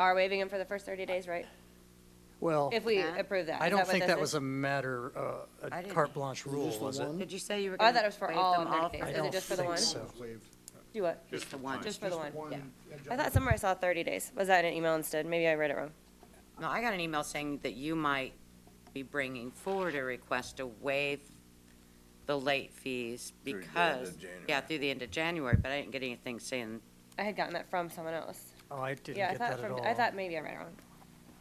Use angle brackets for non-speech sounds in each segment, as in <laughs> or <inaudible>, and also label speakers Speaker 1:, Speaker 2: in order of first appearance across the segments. Speaker 1: are waiving them for the first 30 days, right?
Speaker 2: Well,
Speaker 1: If we
Speaker 3: Yeah.
Speaker 1: approve that.
Speaker 2: I
Speaker 1: Is
Speaker 2: don't
Speaker 1: what
Speaker 2: think
Speaker 1: this
Speaker 2: that
Speaker 1: is?
Speaker 2: was a matter, uh,
Speaker 3: I
Speaker 2: a
Speaker 3: didn't-
Speaker 2: carte blanche rule,
Speaker 4: the
Speaker 2: was it?
Speaker 4: one?
Speaker 3: Did you say you were
Speaker 1: Oh, I
Speaker 3: going
Speaker 1: thought it
Speaker 3: to
Speaker 1: was for
Speaker 3: waive
Speaker 1: all
Speaker 3: them
Speaker 1: of their
Speaker 3: all?
Speaker 1: days.
Speaker 3: for-
Speaker 2: I
Speaker 1: Is it
Speaker 2: don't
Speaker 1: just for the
Speaker 2: think
Speaker 1: one?
Speaker 2: so.
Speaker 4: Waived.
Speaker 1: Do what?
Speaker 3: Just the one.
Speaker 1: Just for the
Speaker 4: Just
Speaker 1: one, yeah.
Speaker 4: one
Speaker 1: I
Speaker 4: agenda.
Speaker 1: thought somewhere I saw 30 days. Was that an email instead? Maybe I read it wrong.
Speaker 3: No, I got an email saying that you might be bringing forward a request to waive the late fees
Speaker 5: the end of
Speaker 3: because, yeah,
Speaker 5: January.
Speaker 3: through the end of January, but I didn't get anything saying,
Speaker 1: I had gotten that from someone else.
Speaker 2: Oh, I didn't
Speaker 1: Yeah, I
Speaker 2: get
Speaker 1: thought
Speaker 2: that at
Speaker 1: from,
Speaker 2: all.
Speaker 1: I thought maybe I read it wrong.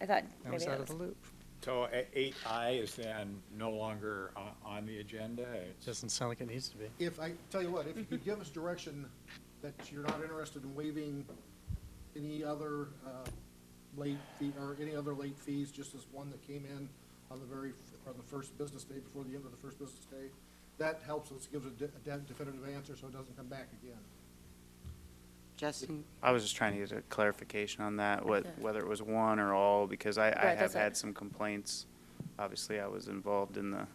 Speaker 1: I thought
Speaker 2: I
Speaker 1: maybe
Speaker 2: was
Speaker 1: that
Speaker 2: out of
Speaker 1: was.
Speaker 2: the loop.
Speaker 6: So eight I is then no longer on, on the agenda? It's-
Speaker 2: Doesn't sound like it needs to be.
Speaker 4: If, I tell you what, if you could give us direction that you're not interested in waiving any other uh, late fee, or any other late fees, just as one that came in on the very, f- on the first business day, before the end of the first business day, that helps us, gives a de- a definitive answer so it doesn't come back again.
Speaker 3: Justin,
Speaker 7: I was just trying to get a clarification on that, what, whether it was one or all, because I, I
Speaker 1: Right,
Speaker 7: have
Speaker 1: that's it.
Speaker 7: had some complaints. Obviously, I was involved in the,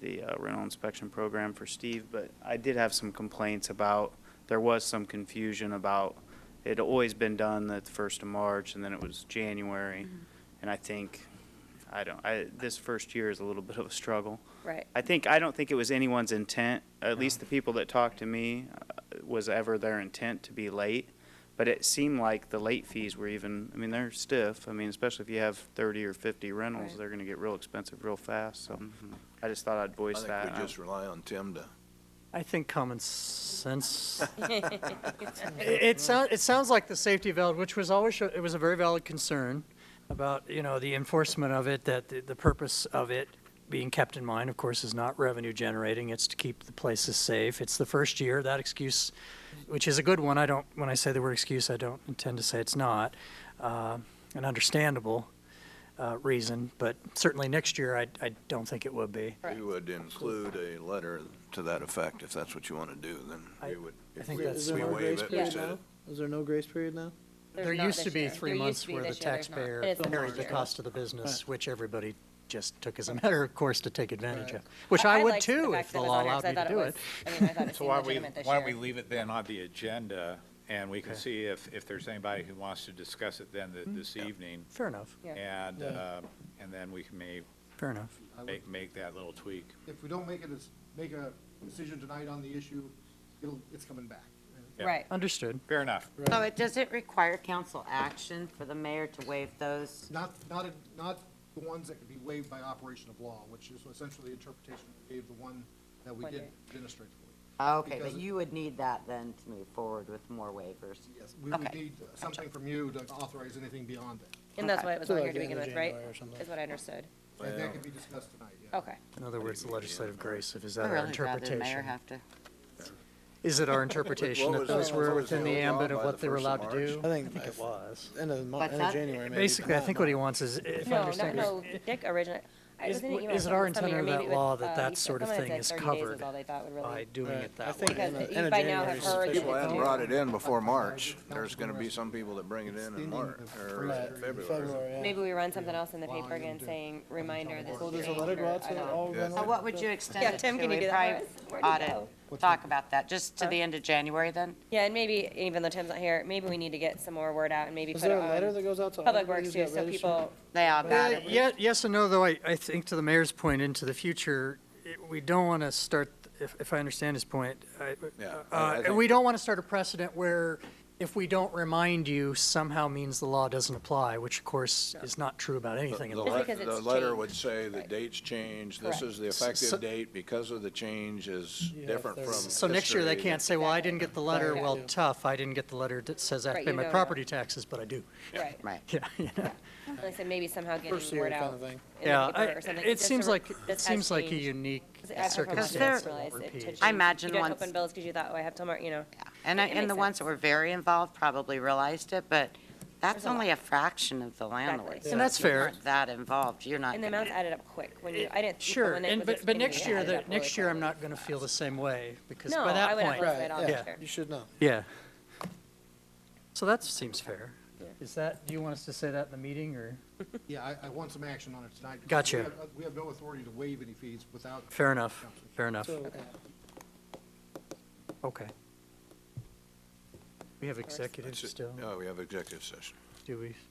Speaker 7: the uh, rental inspection program for Steve, but I did have some complaints about, there was some confusion about, it had always been done the first of March, and then it was January.
Speaker 1: Mm-hmm.
Speaker 7: And I think, I don't, I, this first year is a little bit of a struggle.
Speaker 1: Right.
Speaker 7: I think, I don't think it was anyone's intent, at least the people that talked to me, uh, was ever their intent to be late. But it seemed like the late fees were even, I mean, they're stiff. I mean, especially if you have thirty or fifty rentals,
Speaker 1: Right.
Speaker 7: they're gonna get real expensive real fast, so I just thought I'd voice
Speaker 5: I
Speaker 7: that.
Speaker 5: think we
Speaker 7: I-
Speaker 5: just rely on Tim to.
Speaker 2: I think common sense. It- It sounds, it sounds like the safety valve, which was always, it was a very valid concern about, you know, the enforcement of it, that the, the purpose of it being kept in mind, of course, is not revenue generating, it's to keep the places safe. It's the first year, that excuse, which is a good one, I don't, when I say the word excuse, I don't intend to say it's not, uh, an understandable, uh, reason, but certainly next year, I, I don't think it would be.
Speaker 1: Correct.
Speaker 5: We would include a letter to that effect, if that's what you want to do, then
Speaker 2: I-
Speaker 5: we would.
Speaker 2: I
Speaker 5: if
Speaker 2: think
Speaker 5: we-
Speaker 2: that's- Is
Speaker 5: if
Speaker 2: there
Speaker 5: we
Speaker 2: no
Speaker 5: waive
Speaker 4: grace
Speaker 5: it, we
Speaker 1: period
Speaker 5: said it.
Speaker 4: Is there no grace period now?
Speaker 2: There used to be three months where the taxpayer carried the
Speaker 1: cost.
Speaker 2: cost of the business, which everybody just took as a matter of course to take advantage of, which
Speaker 1: I- I
Speaker 2: I would
Speaker 1: liked the
Speaker 2: too
Speaker 1: fact
Speaker 2: if
Speaker 1: that
Speaker 2: the
Speaker 1: it was
Speaker 2: law
Speaker 1: on here,
Speaker 2: allowed
Speaker 1: 'cause I
Speaker 2: me to
Speaker 1: thought it
Speaker 2: do
Speaker 1: was-
Speaker 2: it.
Speaker 1: I mean, I thought it
Speaker 6: So
Speaker 1: seemed
Speaker 6: why we,
Speaker 1: legitimate this year.
Speaker 6: why don't we leave it then on the agenda, and we can see if, if there's anybody who wants to discuss it then th- this evening,
Speaker 2: Fair enough,
Speaker 1: Yeah.
Speaker 6: and, uh, and then we can may,
Speaker 2: fair enough.
Speaker 6: make, make that little tweak.
Speaker 4: If we don't make it, as- make a decision tonight on the issue, it'll, it's coming back.
Speaker 6: Yeah.
Speaker 1: Right.
Speaker 2: Understood.
Speaker 6: Fair enough.
Speaker 3: so it, does it require council action for the mayor to waive those?
Speaker 4: Not, not, not the ones that could be waived by operation of law, which is essentially the interpretation we gave the one that we
Speaker 1: One
Speaker 4: did
Speaker 1: day.
Speaker 4: administratively.
Speaker 3: Okay,
Speaker 4: Because
Speaker 3: but
Speaker 4: it-
Speaker 3: you would need that then to move forward with more waivers.
Speaker 4: Yes, we would
Speaker 3: Okay.
Speaker 4: need something from you to authorize anything beyond that.
Speaker 1: And that's
Speaker 3: Okay.
Speaker 1: why it was on here to begin with, right? Is what I understood.
Speaker 4: And that could be discussed tonight, yeah.
Speaker 1: Okay.
Speaker 2: In other words, the legislative grace, if is
Speaker 3: I'd
Speaker 2: that our
Speaker 3: really rather the mayor
Speaker 2: interpretation?
Speaker 3: have to.
Speaker 2: Is it our interpretation
Speaker 5: What
Speaker 2: that
Speaker 5: was-
Speaker 2: those
Speaker 5: what
Speaker 2: were
Speaker 5: was
Speaker 2: within
Speaker 5: the
Speaker 2: the
Speaker 5: old law
Speaker 2: ambit of
Speaker 5: by
Speaker 2: what
Speaker 5: the
Speaker 2: they were
Speaker 5: first of
Speaker 2: allowed to
Speaker 5: March?
Speaker 2: do?
Speaker 8: I think it was. End of, Mar-
Speaker 3: What's
Speaker 8: end of
Speaker 3: that?
Speaker 8: January, maybe.
Speaker 2: Basically, I
Speaker 8: No,
Speaker 2: think
Speaker 8: no.
Speaker 2: what he wants is, if I
Speaker 1: No, not,
Speaker 2: understand,
Speaker 1: no, Dick originally. I was
Speaker 2: is,
Speaker 1: in an email
Speaker 2: is it
Speaker 1: from
Speaker 2: our
Speaker 1: somebody,
Speaker 2: intent
Speaker 1: or
Speaker 2: of
Speaker 1: maybe
Speaker 2: that
Speaker 1: it
Speaker 2: law
Speaker 1: was, uh,
Speaker 2: that
Speaker 1: you
Speaker 2: that
Speaker 1: said-
Speaker 2: sort of
Speaker 1: someone
Speaker 2: thing
Speaker 1: had
Speaker 2: is
Speaker 1: said 30 days was
Speaker 2: covered
Speaker 1: all they thought would
Speaker 2: by
Speaker 1: really.
Speaker 2: doing it
Speaker 8: I
Speaker 2: that way?
Speaker 8: think
Speaker 1: Because
Speaker 8: end of-
Speaker 1: you
Speaker 8: end of
Speaker 1: by now
Speaker 8: January
Speaker 1: have
Speaker 8: is
Speaker 1: heard-
Speaker 5: People
Speaker 8: sufficient.
Speaker 5: hadn't brought it in before March,
Speaker 4: Council
Speaker 5: there's going to be some people that bring it in in
Speaker 4: Extending
Speaker 5: March,
Speaker 4: the
Speaker 5: or
Speaker 4: first
Speaker 8: Right,
Speaker 5: February.
Speaker 8: yeah.
Speaker 1: Maybe we run something else in the paper
Speaker 4: Volume
Speaker 1: again
Speaker 4: to-
Speaker 1: saying, reminder, this
Speaker 8: Well,
Speaker 1: is
Speaker 8: there's a
Speaker 1: changed,
Speaker 8: letter go
Speaker 1: or
Speaker 8: out
Speaker 1: I
Speaker 8: to
Speaker 1: don't-
Speaker 8: all
Speaker 5: Yeah.
Speaker 8: rental-
Speaker 3: So what would you extend
Speaker 1: Yeah,
Speaker 3: it to?
Speaker 1: Tim, can you
Speaker 3: A
Speaker 1: do that for
Speaker 3: private
Speaker 1: us? Where'd it
Speaker 3: audit.
Speaker 1: go?
Speaker 3: Talk about that, just to the end of January then?
Speaker 1: Yeah, and maybe, even though Tim's not here, maybe we need to get some more word out and maybe put
Speaker 8: Is
Speaker 1: it
Speaker 8: there a letter
Speaker 1: on
Speaker 8: that goes out to all
Speaker 1: Public
Speaker 8: everybody
Speaker 1: Works too,
Speaker 8: who's got
Speaker 1: so people,
Speaker 3: They all got
Speaker 2: Uh,
Speaker 3: it.
Speaker 2: yeah, yes and no, though, I, I think to the mayor's point, into the future, it- we don't want to start, if, if I understand his point, I,
Speaker 5: Yeah, I- I
Speaker 2: uh,
Speaker 5: think-
Speaker 2: we don't want to start a precedent where if we don't remind you somehow means the law doesn't apply, which of course is not true about
Speaker 5: The-
Speaker 2: anything. in
Speaker 5: The
Speaker 2: law.
Speaker 5: le-
Speaker 1: because it's
Speaker 5: the letter
Speaker 1: changed.
Speaker 5: would say the
Speaker 1: Right.
Speaker 5: date's changed, this is the
Speaker 2: S- so-
Speaker 5: effective date because of the change is
Speaker 8: Yeah,
Speaker 5: different
Speaker 8: there's-
Speaker 5: from history.
Speaker 2: So next year, they can't say, well, I
Speaker 1: Exactly.
Speaker 2: didn't get the letter,
Speaker 1: Right.
Speaker 2: well, tough, I didn't get the letter that says I have
Speaker 1: Right,
Speaker 2: to pay
Speaker 1: you
Speaker 2: my
Speaker 1: don't know.
Speaker 2: property taxes, but I do. <laughs>
Speaker 1: right.
Speaker 3: Right.
Speaker 2: Yeah, you know.
Speaker 1: And I said maybe somehow
Speaker 8: First
Speaker 1: getting
Speaker 8: year
Speaker 1: word
Speaker 8: kind
Speaker 1: out
Speaker 8: of thing.
Speaker 1: in
Speaker 2: Yeah,
Speaker 1: the
Speaker 2: I-
Speaker 1: paper or something.
Speaker 2: it
Speaker 1: just to
Speaker 2: seems
Speaker 1: re-
Speaker 2: like, it
Speaker 1: this has
Speaker 2: seems like a
Speaker 1: changed.
Speaker 2: unique
Speaker 1: 'Cause I forgot about
Speaker 2: circumstance
Speaker 1: that,
Speaker 2: that
Speaker 1: realized
Speaker 2: won't
Speaker 1: it to
Speaker 2: repeat.
Speaker 1: change.
Speaker 3: I imagine
Speaker 1: You don't
Speaker 3: once-
Speaker 1: open bills because you thought, oh, I have till March, you know.
Speaker 3: And, I-
Speaker 1: It
Speaker 3: and the
Speaker 1: makes
Speaker 3: ones
Speaker 1: sense.
Speaker 3: that were very involved probably realized it, but that's
Speaker 1: a lot.
Speaker 3: only a fraction of the landlords.
Speaker 1: Exactly.
Speaker 2: And that's
Speaker 3: If you
Speaker 2: fair.
Speaker 3: weren't That involved, you're not
Speaker 1: And the
Speaker 3: gonna-
Speaker 1: amounts added up quick when you, I didn't.
Speaker 2: Sure,
Speaker 1: when it
Speaker 2: and,
Speaker 1: was
Speaker 2: but, but
Speaker 1: extended,
Speaker 2: next
Speaker 1: it
Speaker 2: year,
Speaker 1: added
Speaker 2: the,
Speaker 1: up really
Speaker 2: next year, I'm
Speaker 1: quick.
Speaker 2: not gonna feel the same way, because
Speaker 1: No,
Speaker 2: by
Speaker 1: I
Speaker 2: that
Speaker 1: would have
Speaker 2: point.
Speaker 1: listed it all
Speaker 8: Right,
Speaker 1: this
Speaker 2: yeah.
Speaker 1: year.
Speaker 8: You should know.
Speaker 2: Yeah. So that seems fair. Is that, do you want us to say that in the meeting, or?
Speaker 4: Yeah, I, I want some action on it tonight. because
Speaker 2: Gotcha.
Speaker 4: we have- We have no authority to waive any fees without.
Speaker 2: Fair enough, fair enough,
Speaker 8: So,
Speaker 2: okay. We have executive still,
Speaker 5: Oh, we have Uh, executive session.
Speaker 2: do we?